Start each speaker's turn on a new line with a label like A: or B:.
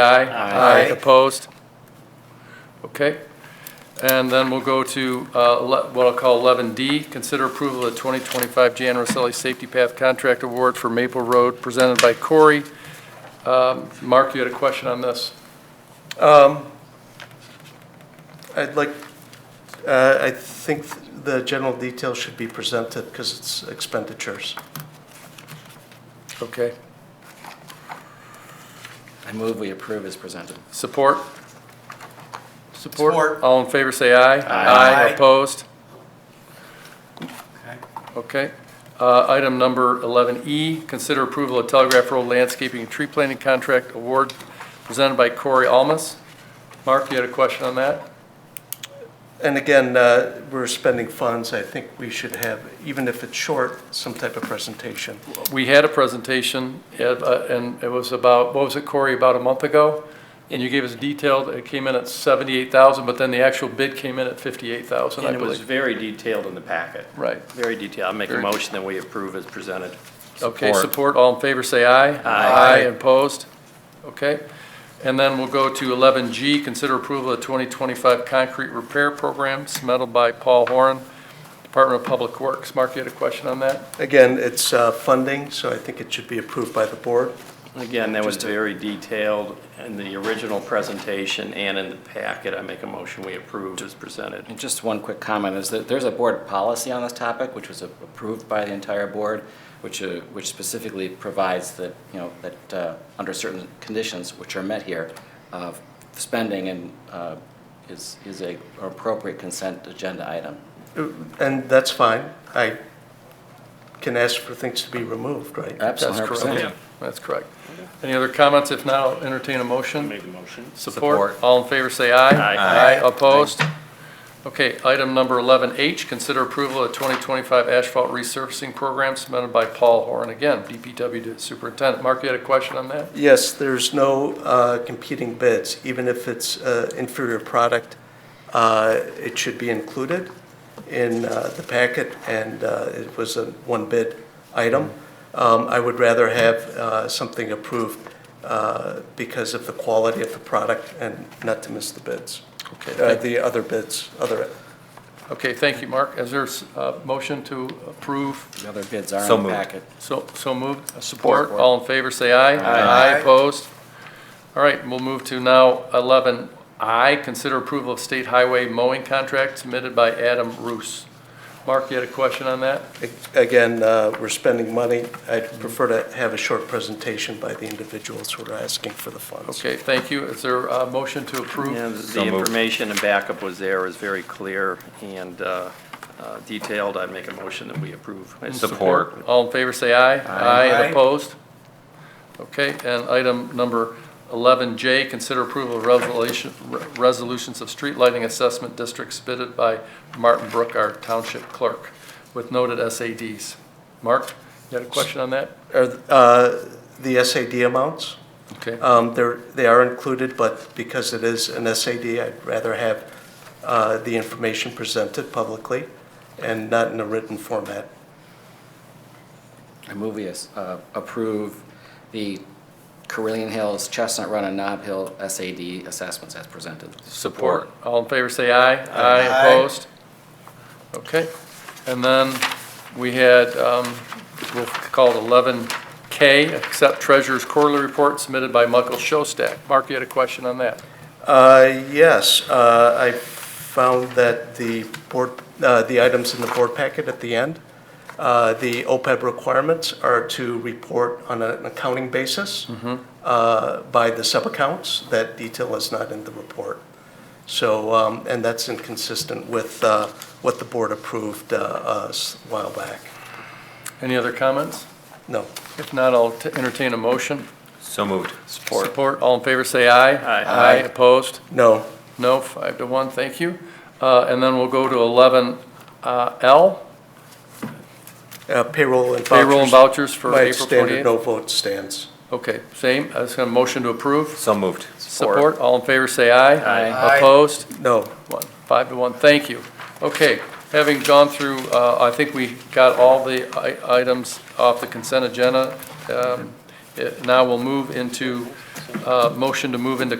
A: Aye.
B: Aye.
A: Opposed? Okay. And then we'll go to uh, le- what I'll call 11D, consider approval of the 2025 Jan Roselli Safety Path Contract Award for Maple Road presented by Corey. Um, Mark, you had a question on this?
B: Um, I'd like, uh, I think the general details should be presented because it's expenditures.
A: Okay.
C: I move we approve as presented.
A: Support?
D: Support.
A: All in favor, say aye.
C: Aye.
A: Opposed? Okay. Uh, Item number 11E, consider approval of Telegraph Road Landscaping and Tree Planting Contract Award presented by Corey Almus. Mark, you had a question on that?
B: And again, uh, we're spending funds, I think we should have, even if it's short, some type of presentation.
A: We had a presentation, uh, and it was about, what was it, Corey, about a month ago? And you gave us detailed, it came in at 78,000, but then the actual bid came in at 58,000, I
D: And it was
A: believe.
D: very detailed in the packet,
A: Right.
D: very detailed. I'll make a
A: Very-
D: motion that we approve as presented.
A: Okay, support, all in favor, say aye.
D: Aye.
A: opposed? Okay. And then we'll go to 11G, consider approval of 2025 concrete repair program submitted by Paul Horan, Department of Public Works. Mark, you had a question on that?
B: Again, it's uh, funding, so I think it should be approved by the board.
D: Again, that was very detailed in the original presentation and in the packet. I make a motion we approve as presented.
C: And just one quick comment is that there's a board policy on this topic, which was approved by the entire board, which, uh, which specifically provides that, you know, that uh, under certain conditions, which are met here, uh, spending and uh, is, is a appropriate consent agenda item.
B: Uh, And that's fine, I can ask for things to be removed, right?
C: Absolutely,
A: That's
C: 100%.
A: correct. That's correct. Any other comments? If not, I'll entertain a motion.
D: a motion.
A: Support,
C: Support.
A: all in favor, say aye.
D: Aye.
A: Aye, opposed? Okay, item number 11H, consider approval of 2025 asphalt resurfacing program submitted by Paul Horan, again, DPW to superintendent. Mark, you had a question on that?
B: Yes, there's no uh, competing bids, even if it's uh, inferior product, uh, it should be included in uh, the packet, and uh, it was a one-bid item. Um, I would rather have uh, something approved uh, because of the quality of the product and not to miss the bids,
A: Okay,
B: Uh,
A: thank-
B: the other bids, other
A: okay, thank you, Mark. Is there a motion to approve?
C: The other bids are in the packet.
A: So, so moved? Support, all in favor, say aye. Aye. opposed? All right, we'll move to now 11I, consider approval of state highway mowing contract submitted by Adam Roos. Mark, you had a question on that?
B: Again, uh, we're spending money. I'd prefer to have a short presentation by the individuals who are asking for the funds.
A: Okay, thank you. Is there a motion to
D: Yeah,
A: approve?
D: the information and backup was there, is very clear and uh, uh, detailed. I make a motion that we approve. Support.
A: All in favor, say aye. Aye. and opposed? Okay, and item number 11J, consider approval of resolution- re- resolutions of street lighting assessment districts submitted by Martin Brook, our township clerk, with noted SADs. Mark, you had a question on that?
B: Are, uh, The SAD amounts,
A: Okay,
B: um, they're, they are included, but because it is an SAD, I'd rather have uh, the information presented publicly and not in a written format.
C: I move we uh, approve the Carillion Hills, Chestnut Run, and Nob Hill SAD assessments as presented.
A: support. All in favor, say aye. Aye. Opposed? Okay, and then we had, um, we'll call it 11K, accept treasurer's quarterly report submitted by Michael Shostak. Mark, you had a question on that?
B: Uh, Yes, uh, I found that the board, uh, the items in the board packet at the end, uh, the OPEB requirements are to report on an accounting basis
A: Mm-hmm.
B: uh, by the sub-accounts. That detail is not in the report. So, um, and that's inconsistent with uh, what the board approved uh, us a while back.
A: Any other comments?
B: No.
A: If not, I'll t- entertain a motion.
E: So moved.
A: Support. all in favor, say aye.
D: Aye.
A: Aye, opposed?
B: No.
A: No, five to one, thank you. Uh, And then we'll go to 11L,
B: Uh, Payroll and vouchers.
A: payroll and vouchers for
B: My
A: April
B: standard
A: 28th.
B: no vote stands.
A: Okay, same, I was going to motion to approve.
E: So moved.
A: Support, all in favor, say aye.
D: Aye.
A: Opposed?
B: No.
A: One, five to one, thank you. Okay, having gone through, uh, I think we got all the uh, i- items off the consent agenda. Um, it- Now we'll move into Uh, Motion to move into